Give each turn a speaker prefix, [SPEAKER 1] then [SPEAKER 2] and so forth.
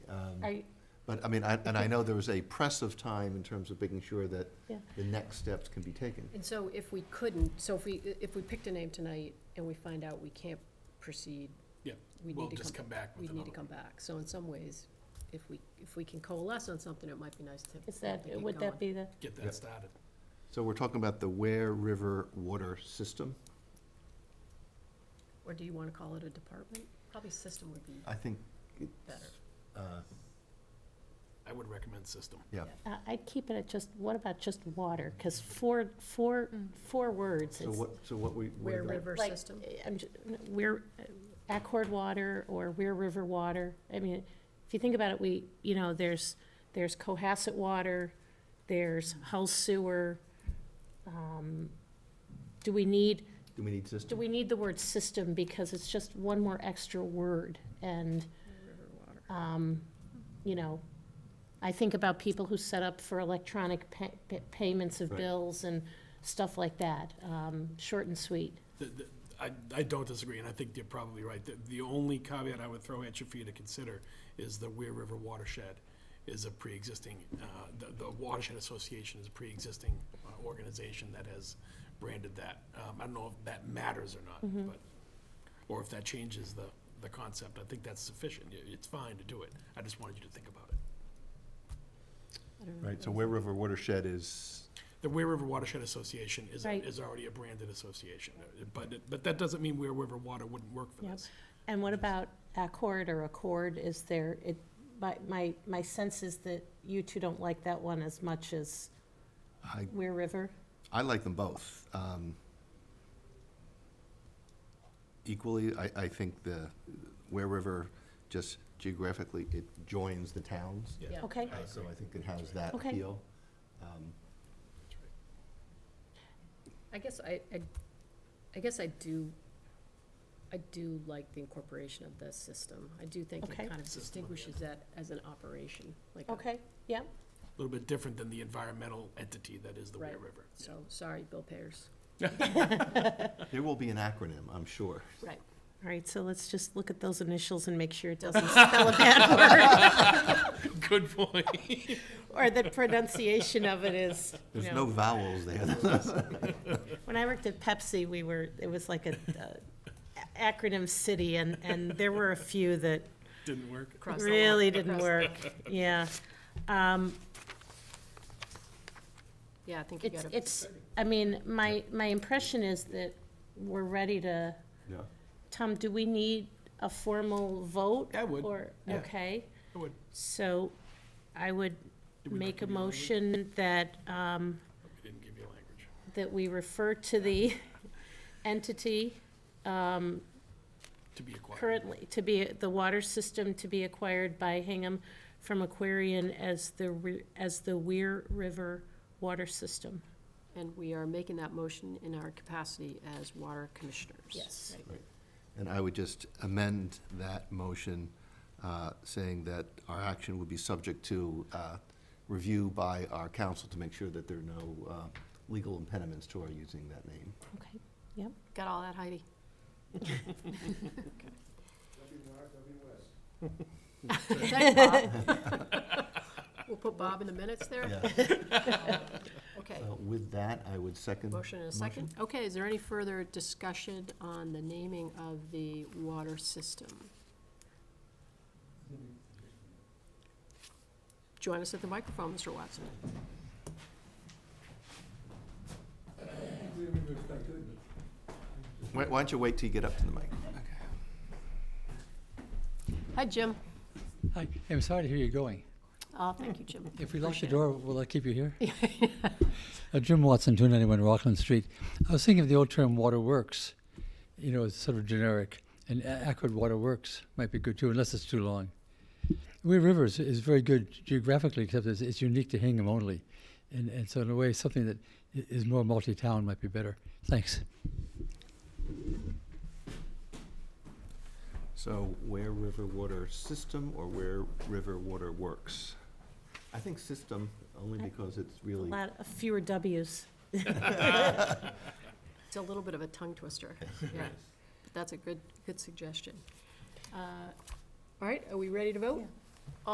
[SPEAKER 1] I,
[SPEAKER 2] Um, But, I mean, I, and I know there was a press of time in terms of making sure that
[SPEAKER 1] Yeah.
[SPEAKER 2] the next steps can be taken.
[SPEAKER 1] and so if we couldn't, so if we, if we picked a name tonight and we find out we can't proceed,
[SPEAKER 3] Yeah,
[SPEAKER 1] we
[SPEAKER 3] we'll
[SPEAKER 1] need to
[SPEAKER 3] just
[SPEAKER 1] come,
[SPEAKER 3] come back
[SPEAKER 1] we
[SPEAKER 3] with
[SPEAKER 1] need to
[SPEAKER 3] another.
[SPEAKER 1] come back. So in some ways, if we, if we can coalesce on something, it might be nice to.
[SPEAKER 4] Is that,
[SPEAKER 1] to get
[SPEAKER 4] would that
[SPEAKER 1] going.
[SPEAKER 4] be the,
[SPEAKER 3] Get
[SPEAKER 2] Yeah.
[SPEAKER 3] that started.
[SPEAKER 2] So we're talking about the Ware River Water System.
[SPEAKER 1] Or do you wanna call it a department? Probably system would be,
[SPEAKER 2] I think it's,
[SPEAKER 1] Better.
[SPEAKER 2] uh,
[SPEAKER 3] I would recommend system.
[SPEAKER 2] yeah,
[SPEAKER 4] I- uh, I'd keep it at just, what about just water? Because four, four, four words.
[SPEAKER 2] so
[SPEAKER 4] it's
[SPEAKER 2] what, so what we. what
[SPEAKER 1] Ware
[SPEAKER 2] are the-
[SPEAKER 1] River
[SPEAKER 4] like,
[SPEAKER 1] System.
[SPEAKER 4] I'm, ju- we're, uh, Accord Water or Weir River Water. I mean, if you think about it, we, you know, there's, there's Cohasset Water, there's Hull Sewer. um, Do we need,
[SPEAKER 2] Do we need
[SPEAKER 4] do
[SPEAKER 2] system?
[SPEAKER 4] we need the word system? Because it's just one more extra word and.
[SPEAKER 1] River water.
[SPEAKER 4] um, you know, I think about people who set up for electronic pa- pa- payments of
[SPEAKER 2] Right.
[SPEAKER 4] bills and stuff like that, um, short and sweet.
[SPEAKER 3] The- the- I, I don't disagree, and I think you're probably right. The, the only caveat I would throw at you for you to consider is the Weir River watershed is a pre-existing, uh, the, the Watershed Association is a pre-existing uh, organization that has branded that. Um, I don't know if that matters or
[SPEAKER 1] Mm-hmm.
[SPEAKER 3] not, but, or if that changes the, the concept. I think that's sufficient. It- It's fine to do it. I just wanted you to think about it.
[SPEAKER 1] I don't know.
[SPEAKER 2] Right, so Ware River Watershed is,
[SPEAKER 3] The Ware River Watershed Association is,
[SPEAKER 4] Right.
[SPEAKER 3] is already a branded association, but, it- but that doesn't mean Ware River Water wouldn't work for
[SPEAKER 4] Yep.
[SPEAKER 3] this.
[SPEAKER 4] And what about accord or accord, is there, it, my, my, my sense is that you two don't like that one as much as
[SPEAKER 2] I,
[SPEAKER 4] Weir River?
[SPEAKER 2] I like them both. Um, Equally, I, I think the Ware River, just geographically, it joins the towns.
[SPEAKER 3] Yeah.
[SPEAKER 1] Yeah.
[SPEAKER 4] Okay,
[SPEAKER 2] Uh, So I think it has that
[SPEAKER 4] Okay.
[SPEAKER 2] appeal.
[SPEAKER 1] I guess I, I, I guess I do, I do like the incorporation of the system. I do think it
[SPEAKER 4] Okay.
[SPEAKER 1] kind of
[SPEAKER 3] System of the
[SPEAKER 1] distinguishes that as an operation, like a
[SPEAKER 4] okay, yeah,
[SPEAKER 3] A little bit different than the environmental entity that is the Ware
[SPEAKER 1] Right.
[SPEAKER 3] River.
[SPEAKER 1] So, sorry, Bill Payers.
[SPEAKER 2] There will be an acronym, I'm sure.
[SPEAKER 1] Right.
[SPEAKER 4] all right, so let's just look at those initials and make sure it doesn't spell a bad word,
[SPEAKER 3] Good point.
[SPEAKER 4] or that pronunciation of it is, you know.
[SPEAKER 2] There's no vowels there.
[SPEAKER 4] When I worked at Pepsi, we were, it was like a uh, acronym city, and, and there were a few that
[SPEAKER 3] Didn't work.
[SPEAKER 1] Cross the line.
[SPEAKER 4] really didn't
[SPEAKER 1] Cross the
[SPEAKER 4] work. Yeah. Um,
[SPEAKER 1] Yeah, I think you
[SPEAKER 4] It's,
[SPEAKER 1] gotta.
[SPEAKER 4] it's, I mean, my, my impression is that we're ready to,
[SPEAKER 2] Yeah.
[SPEAKER 4] Tom, do we need a formal vote?
[SPEAKER 3] I would,
[SPEAKER 4] Or,
[SPEAKER 3] yeah.
[SPEAKER 4] okay,
[SPEAKER 3] I would-
[SPEAKER 4] so I would
[SPEAKER 3] Did we not
[SPEAKER 4] make a
[SPEAKER 3] give you language?
[SPEAKER 4] motion that, um,
[SPEAKER 3] We didn't give you language.
[SPEAKER 4] that we refer to the entity
[SPEAKER 3] To be acquired.
[SPEAKER 4] currently, to be, the water system to be acquired by Hingham from Aquarian as the, re- as the Weir River Water System.
[SPEAKER 1] And we are making that motion in our capacity as water commissioners.
[SPEAKER 4] Yes.
[SPEAKER 1] Right.
[SPEAKER 2] And I would just amend that motion, uh, saying that our action would be subject to uh, review by our council to make sure that there are no uh, legal impediments to our using that name.
[SPEAKER 4] Okay, yep.
[SPEAKER 1] Got all that, Heidi? Thanks, Bob. We'll put Bob in the minutes there. Okay,
[SPEAKER 2] Uh, With that, I would second.
[SPEAKER 1] motion and a second. Okay, is there any further discussion on the naming of the water system? Join us at the microphone, Mr. Watson.
[SPEAKER 2] Why why don't you wait till you get up to the mic?
[SPEAKER 1] Hi, Jim.
[SPEAKER 5] Hi, I'm sorry to hear you're going.
[SPEAKER 1] Oh, thank you, Jim.
[SPEAKER 5] If we lock the
[SPEAKER 1] Appreciate it.
[SPEAKER 5] door, will that keep you here? Uh, Jim Watson, 291 Rockland Street. I was thinking of the old term water works. You know, it's sort of generic. And a- Acrid Water Works might be good too, unless it's too long. Weir Rivers is very good geographically, except it's, it's unique to Hingham only. And, and so, in a way, something that i- is more multi town might be better. Thanks.
[SPEAKER 2] So Ware River Water System or Ware River Water Works? I think system, only because it's
[SPEAKER 4] A
[SPEAKER 2] really.
[SPEAKER 4] lot, of fewer Ws.
[SPEAKER 1] It's a little bit of a tongue twister. Yeah, but that's a good, good suggestion. Uh, All right, are we ready to vote?